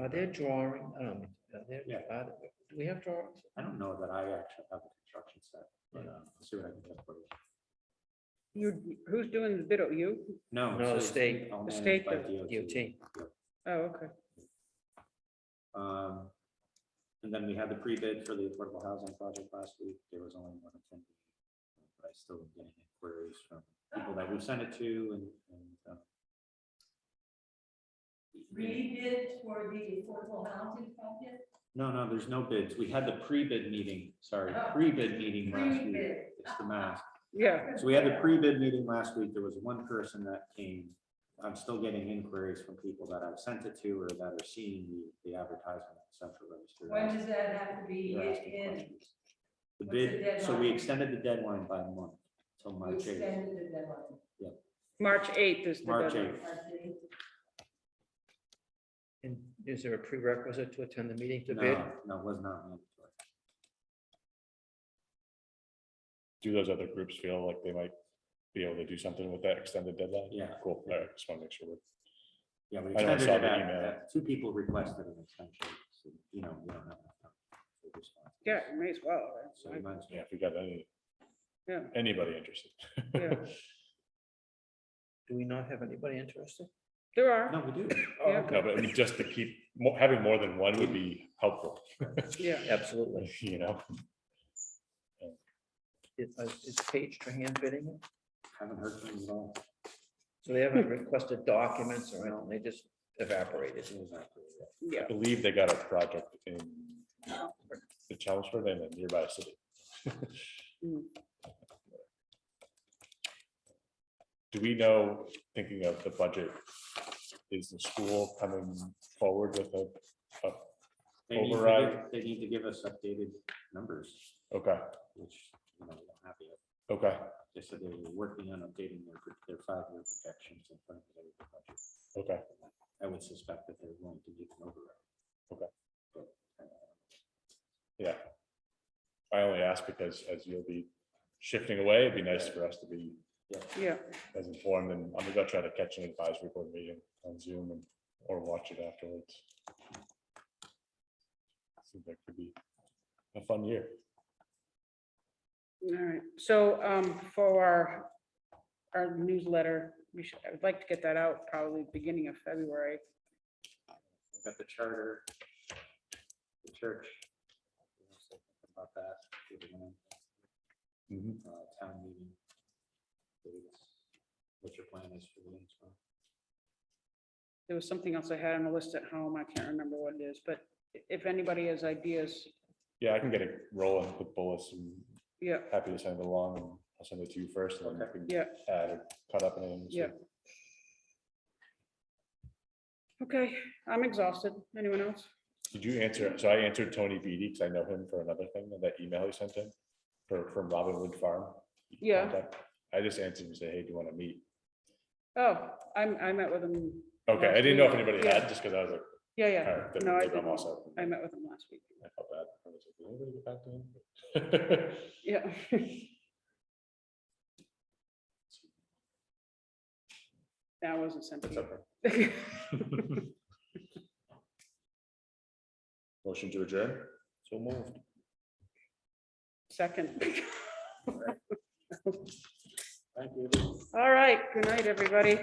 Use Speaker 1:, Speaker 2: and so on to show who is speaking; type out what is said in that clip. Speaker 1: Are there drawing, um, are there,
Speaker 2: Yeah.
Speaker 1: are there- do we have drawings?
Speaker 2: I don't know that I actually have a construction set, but uh, I'll see what I can get for you.
Speaker 3: You, who's doing the bid? Oh, You?
Speaker 2: No.
Speaker 1: No,
Speaker 2: so
Speaker 1: state-
Speaker 2: all
Speaker 3: the
Speaker 2: managed
Speaker 3: state
Speaker 2: by
Speaker 3: does
Speaker 1: DOT.
Speaker 3: Oh, okay.
Speaker 2: Um, And then we had the pre-bid for the affordable housing project last week. There was only one attendee. But I still am getting inquiries from people that we sent it to and, and. um,
Speaker 4: rebid for the affordable housing project?
Speaker 2: No, no, there's no bids. We had the pre-bid meeting, sorry,
Speaker 4: Oh.
Speaker 2: pre-bid meeting last week.
Speaker 4: Rebid.
Speaker 2: It's the mask.
Speaker 3: Yeah,
Speaker 2: So we had the pre-bid meeting last week. There was one person that came. I'm still getting inquiries from people that I've sent it to or that are seeing the, the advertisement on central register.
Speaker 4: When does that have to be
Speaker 2: They're asking
Speaker 4: in?
Speaker 2: questions. The
Speaker 4: What's the
Speaker 2: bid, so we
Speaker 4: deadline?
Speaker 2: extended the deadline by a month till
Speaker 4: We
Speaker 2: March eighth.
Speaker 4: extended the deadline.
Speaker 3: March eighth is the
Speaker 2: March
Speaker 3: deadline.
Speaker 2: 8th.
Speaker 4: I see.
Speaker 1: And is there a prerequisite to attend the meeting to
Speaker 2: No,
Speaker 1: bid?
Speaker 2: no, it was not mandatory.
Speaker 5: do those other groups feel like they might be able to do something with that extended deadline?
Speaker 2: Yeah.
Speaker 5: Cool, all right, just want to make sure. we're-
Speaker 2: Yeah, we
Speaker 5: I know, I
Speaker 2: extended
Speaker 5: saw
Speaker 2: it
Speaker 5: the
Speaker 2: out.
Speaker 5: email.
Speaker 2: Uh, Two people requested an extension, so, you know, we don't have. enough time to respond.
Speaker 3: Yeah, may as well. right?
Speaker 2: So we might as
Speaker 5: Yeah,
Speaker 2: well.
Speaker 5: if we got any,
Speaker 3: Yeah.
Speaker 5: anybody interested.
Speaker 3: Yeah.
Speaker 1: Do we not have anybody interested?
Speaker 3: There are,
Speaker 2: No, we do.
Speaker 3: Oh, Yeah.
Speaker 5: No, but I mean, just to keep, mo- having more than one would be helpful,
Speaker 3: yeah.
Speaker 1: Absolutely.
Speaker 5: you know?
Speaker 1: Is is Paige Trahan bidding it?
Speaker 2: Haven't heard from them at all.
Speaker 1: So they haven't requested documents or anything, they just evaporated.
Speaker 2: It was after that.
Speaker 3: Yeah,
Speaker 5: I believe they got a project in the Chelmsford and a nearby city.
Speaker 3: Mm.
Speaker 5: Do we know, thinking of the budget, is the school coming forward with a,
Speaker 2: They need to
Speaker 5: Override.
Speaker 2: give- They need to give us updated numbers,
Speaker 5: okay,
Speaker 2: which, you know, we don't have yet.
Speaker 5: okay,
Speaker 2: They said they were working on updating their, pro- their five-year projections in front of the budget.
Speaker 5: okay,
Speaker 2: I would suspect that they're going to give an override.
Speaker 5: Okay.
Speaker 2: But, uh,
Speaker 5: yeah. I only ask because as you'll be shifting away, it'd be nice for us to be
Speaker 3: yeah.
Speaker 5: as informed and I'm gonna try to catch an advisory board meeting on Zoom and, or watch it afterwards. Seems like could be a fun year.
Speaker 3: All right. So um, for our, our newsletter, we should, I would like to get that out probably beginning of February.
Speaker 2: We've got the charter, the church. we don't say anything About that. we have one,
Speaker 3: Mm-hmm.
Speaker 2: uh, Town meeting. dates, What your plan is for the next one.
Speaker 3: There was something else I had on the list at home. I can't remember what it is, but i- if anybody has ideas,
Speaker 5: Yeah, I can get it rolling with bullets and
Speaker 3: yeah,
Speaker 5: happy to send it along. and I'll send it to you first and then you can
Speaker 3: yeah,
Speaker 5: add or cut up anything. so-
Speaker 3: yeah. Okay, I'm exhausted. Anyone else?
Speaker 5: Did you answer? So I answered Tony Beatty because I know him for another thing, that email he sent in for, from Robin Wood Farm.
Speaker 3: Yeah.
Speaker 5: contact. I just answered and said, hey, do you want to meet?
Speaker 3: Oh, I'm, I met with him.
Speaker 5: Okay, I
Speaker 3: Last
Speaker 5: didn't know if
Speaker 3: meeting,
Speaker 5: anybody
Speaker 3: yeah.
Speaker 5: had, just because I was like,
Speaker 3: Yeah,
Speaker 5: all
Speaker 3: yeah.
Speaker 5: right, then
Speaker 3: No, I
Speaker 5: maybe I'm
Speaker 3: didn't.
Speaker 5: also.
Speaker 3: I met with him last week.
Speaker 5: I felt bad. I was like, "Did anybody get back to him?"
Speaker 3: Yeah. That wasn't sent
Speaker 5: That's
Speaker 3: to
Speaker 5: okay.
Speaker 3: you.
Speaker 5: Motion to adjourn?
Speaker 1: So moved.
Speaker 3: Second.
Speaker 2: Thank you.
Speaker 3: All right. Good night, everybody.